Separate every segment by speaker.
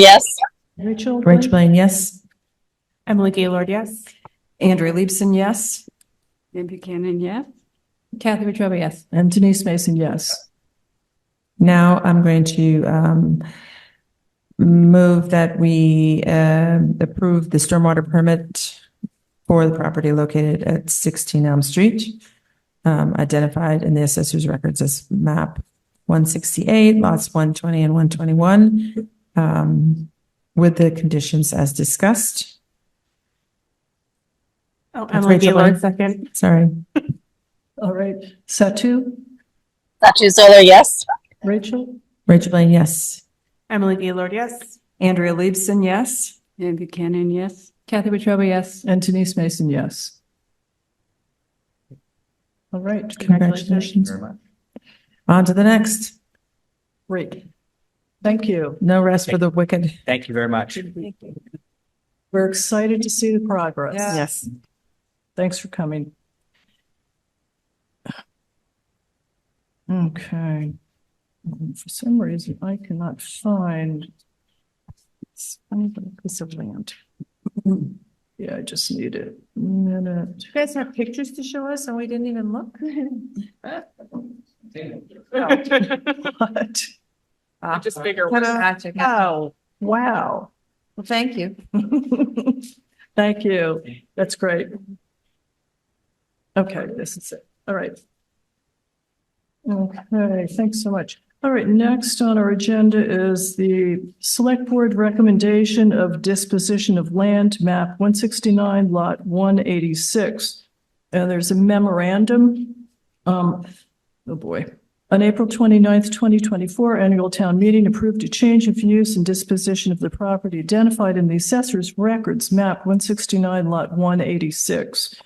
Speaker 1: Yes.
Speaker 2: Rachel?
Speaker 3: Rach Blaine, yes.
Speaker 2: Emily Gaylord, yes.
Speaker 4: Andrea Liebsen, yes.
Speaker 5: Ann Buchanan, yes.
Speaker 2: Kathy Wetruba, yes.
Speaker 3: And Denise Mason, yes. Now I'm going to um, move that we um, approve the stormwater permit for the property located at 16 Elm Street, um, identified in the assessor's records as map 168, lots 120 and 121, um, with the conditions as discussed.
Speaker 2: Oh,
Speaker 3: That's
Speaker 2: Emily
Speaker 3: Rachel Blaine.
Speaker 2: Gaylord, second.
Speaker 3: Sorry.
Speaker 6: All right, Satu,
Speaker 1: Satu Solar, yes.
Speaker 6: Rachel,
Speaker 3: Rachel Blaine, yes.
Speaker 2: Emily Gaylord, yes.
Speaker 4: Andrea Liebsen, yes.
Speaker 5: Ann Buchanan, yes.
Speaker 2: Kathy Wetruba, yes.
Speaker 6: and Denise Mason, yes. All right,
Speaker 3: Congratulations. On to the next.
Speaker 6: great. Thank you.
Speaker 3: No rest for the wicked.
Speaker 7: Thank you very much.
Speaker 6: We're excited to see the progress.
Speaker 4: Yeah.
Speaker 3: Yes.
Speaker 6: Thanks for coming. Okay. Um, For some reason, I cannot find it's funny, but it's a land. Yeah, I just need a minute.
Speaker 2: You guys have pictures to show us and we didn't even look?
Speaker 6: What?
Speaker 2: Just bigger. Ah.
Speaker 6: Oh, wow.
Speaker 2: Well, thank you.
Speaker 6: Thank you. That's great. Okay, this is it. All right. Okay, thanks so much. All right, next on our agenda is the Select Board Recommendation of Disposition of Land, map one sixty-nine, lot one eighty-six. And there's a memorandum, um, oh boy. On April 29th, 2024, annual town meeting approved a change of use and disposition of the property identified in the assessor's records, map 169, lot 186.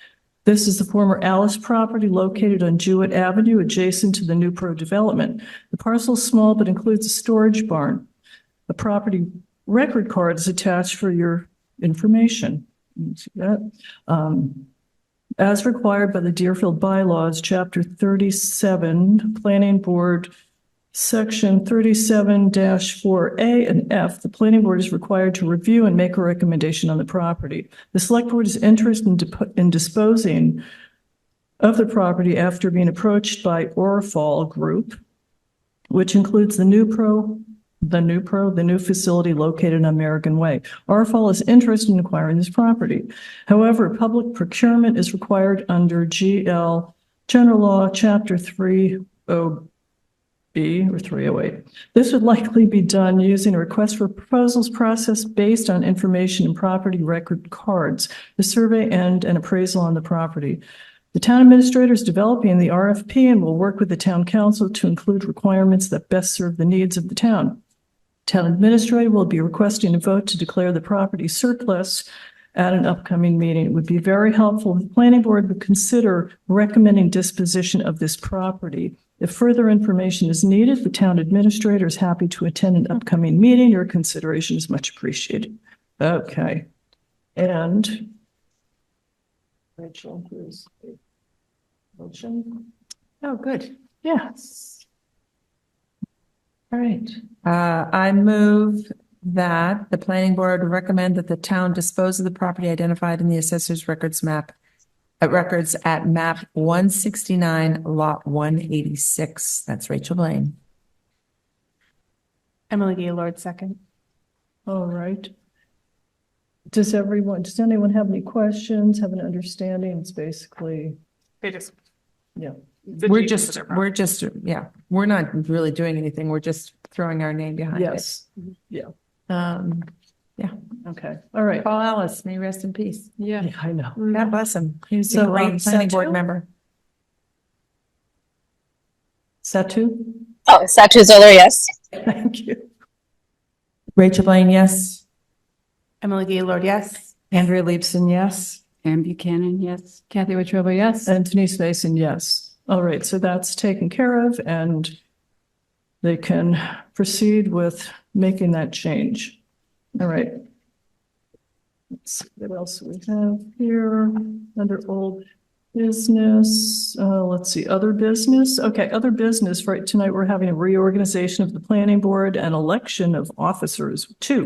Speaker 6: This is the former Alice property located on Jewett Avenue adjacent to the New Pro development. The parcel is small but includes a storage barn. A property record card is attached for your information. You See that? Um, as required by the Deerfield bylaws, chapter thirty-seven, planning board, section thirty-seven four A and F, the planning board is required to review and make a recommendation on the property. The select board is interested in dip- in disposing of the property after being approached by Orifal Group, which includes the new pro, the new pro, the new facility located on American Way. Orifal is interested in acquiring this property. However, public procurement is required under GL General Law, Chapter 30B or 308. This would likely be done using a request for proposals process based on information and property record cards, the survey and an appraisal on the property. The town administrator is developing the RFP and will work with the town council to include requirements that best serve the needs of the town. Town administrator will be requesting a vote to declare the property surplus at an upcoming meeting. It would be very helpful if the planning board would consider recommending disposition of this property. If further information is needed, the town administrator is happy to attend an upcoming meeting. Your consideration is much appreciated. Okay. And Rachel, here's the motion.
Speaker 2: Oh, good.
Speaker 6: Yes. All right.
Speaker 3: Uh, I move that the planning board recommend that the town dispose of the property identified in the assessor's records map, uh, records at map one sixty-nine, lot one eighty-six. That's Rachel Blaine.
Speaker 2: Emily Gaylord, second.
Speaker 6: All right. Does everyone, does anyone have any questions, have an understanding? It's basically,
Speaker 2: They just.
Speaker 6: yeah.
Speaker 3: We're just, we're just, yeah, we're not really doing anything. We're just throwing our name behind it.
Speaker 6: Yes.
Speaker 3: Um,
Speaker 6: Okay, all right.
Speaker 3: Paul Ellis, may he rest in peace.
Speaker 6: Yeah, I know.
Speaker 3: God bless him. He was a
Speaker 6: So, um,
Speaker 3: great planning
Speaker 6: Satu?
Speaker 3: board member.
Speaker 6: Satu?
Speaker 1: Oh, Satu Solar, yes.
Speaker 6: Thank you.
Speaker 3: Rachel Blaine, yes.
Speaker 2: Emily Gaylord, yes.
Speaker 4: Andrea Liebsen, yes.
Speaker 5: Ann Buchanan, yes.
Speaker 2: Kathy Wetruba, yes.
Speaker 6: And Denise Mason, yes. All right, so that's taken care of and they can proceed with making that change. All right. Let's see what else we have here under old. business, uh, let's see, other business. Okay, other business, right, tonight we're having a reorganization of the planning board and election of officers, too.